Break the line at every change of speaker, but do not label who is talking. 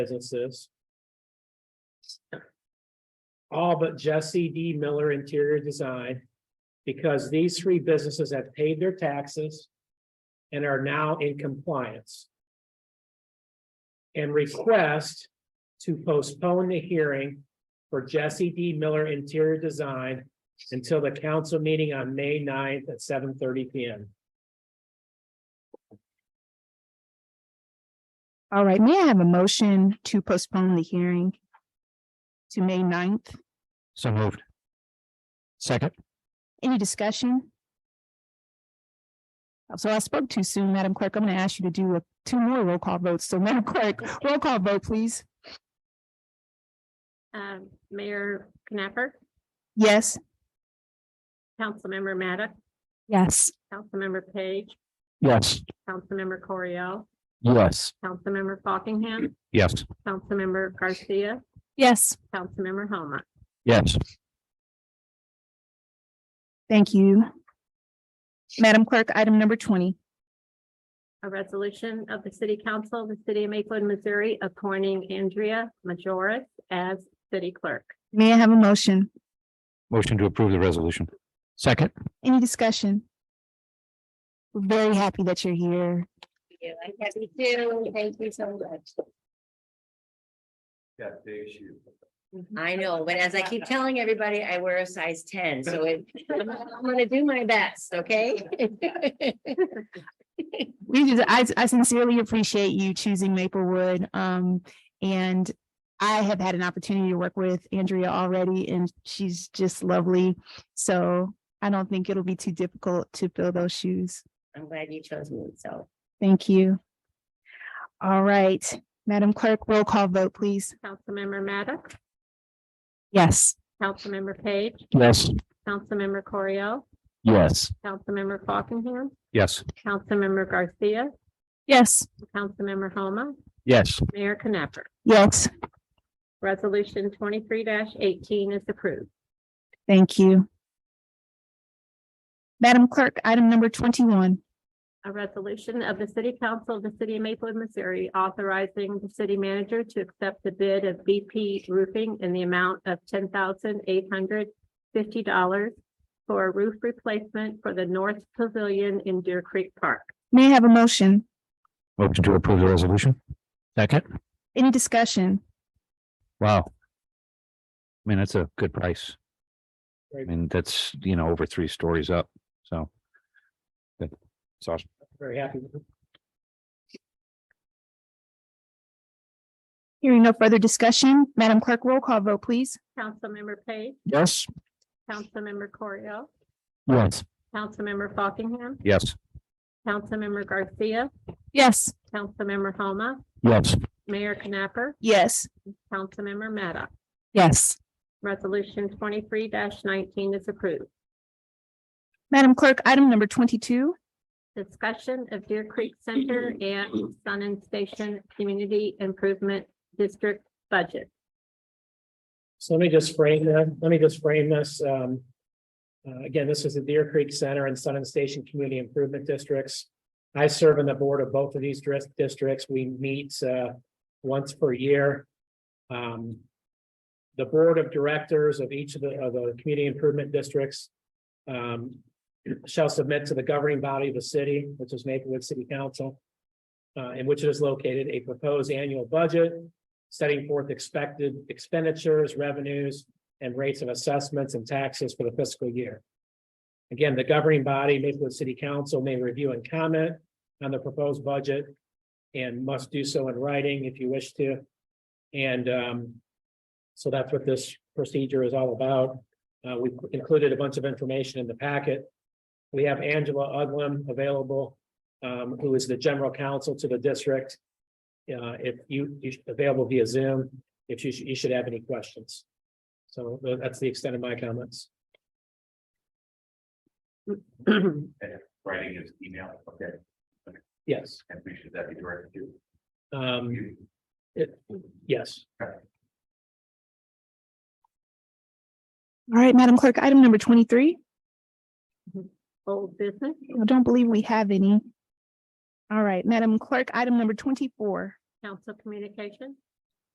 businesses. All but Jesse D. Miller Interior Design, because these three businesses have paid their taxes and are now in compliance. And request to postpone the hearing for Jesse D. Miller Interior Design until the council meeting on May 9th at seven thirty P M.
All right, may I have a motion to postpone the hearing to May 9th?
So moved. Second.
Any discussion? So I spoke too soon, Madam Clerk. I'm going to ask you to do a- two more roll call votes. So Madam Clerk, roll call vote, please.
Um, Mayor Knapper,
Yes.
Councilmember Maddox,
Yes.
Councilmember Page,
Yes.
Councilmember Corio,
Yes.
Councilmember Fockingham,
Yes.
Councilmember Garcia,
Yes.
Councilmember Homa.
Yes.
Thank you. Madam Clerk, item number twenty.
A resolution of the City Council of the City of Maplewood, Missouri, appointing Andrea Majoris as city clerk.
May I have a motion?
Motion to approve the resolution. Second.
Any discussion? We're Very happy that you're here.
you. I'm happy too. Thank you so much.
Got the issue.
I know, but as I keep telling everybody, I wear a size ten, so it- I'm gonna do my best, okay?
We just, I, I sincerely appreciate you choosing Maplewood. Um, and I have had an opportunity to work with Andrea already and she's just lovely. So I don't think it'll be too difficult to fill those shoes.
I'm glad you chose me, so.
Thank you. All right, Madam Clerk, roll call vote, please.
Councilmember Maddox,
Yes.
Councilmember Page,
Yes.
Councilmember Corio,
Yes.
Councilmember Fockingham,
Yes.
Councilmember Garcia,
Yes.
Councilmember Homa,
Yes.
Mayor Knapper.
Yes.
Resolution twenty-three eighteen is approved.
Thank you. Madam Clerk, item number twenty-one.
A resolution of the City Council of the City of Maplewood, Missouri, authorizing the city manager to accept the bid of BP Roofing in the amount of ten thousand eight hundred fifty dollars for a roof replacement for the North Pavilion in Deer Creek Park.
May I have a motion?
Motion to approve the resolution. Second.
Any discussion?
Wow. I mean, that's a good price. I
Right.
mean, that's, you know, over three stories up, so. That's awesome.
Very happy with it.
Hearing no further discussion, Madam Clerk, roll call vote, please.
Councilmember Page,
Yes.
Councilmember Corio,
Yes.
Councilmember Fockingham,
Yes.
Councilmember Garcia,
Yes.
Councilmember Homa,
Yes.
Mayor Knapper,
Yes.
Councilmember Maddox.
Yes.
Resolution twenty-three nineteen is approved.
Madam Clerk, item number twenty-two.
Discussion of Deer Creek Center and Sun and Station Community Improvement District Budget.
So let me just frame that, let me just frame this, um. uh, again, this is the Deer Creek Center and Sun and Station Community Improvement Districts. I serve on the board of both of these dris- districts, we meet, uh, once per year. Um. The board of directors of each of the, of the community improvement districts. Um, shall submit to the governing body of the city, which is Maplewood City Council. Uh, in which it is located, a proposed annual budget setting forth expected expenditures, revenues, and rates of assessments and taxes for the fiscal year. Again, the governing body, Maplewood City Council, may review and comment on the proposed budget and must do so in writing if you wish to. And um, so that's what this procedure is all about. Uh, we included a bunch of information in the packet. We have Angela Uglum available, um, who is the general counsel to the district. Uh, if you, you should- available via Zoom, if you, should- you should have any questions. So tha- that's the extent of my comments.
Writing is email, okay,
Yes,
and we should that be directed to
um,
you?
it- yes,
All right, Madam Clerk, item number twenty-three.
Old business,
I don't believe we have any. All right, Madam Clerk, item number twenty-four.
council communication.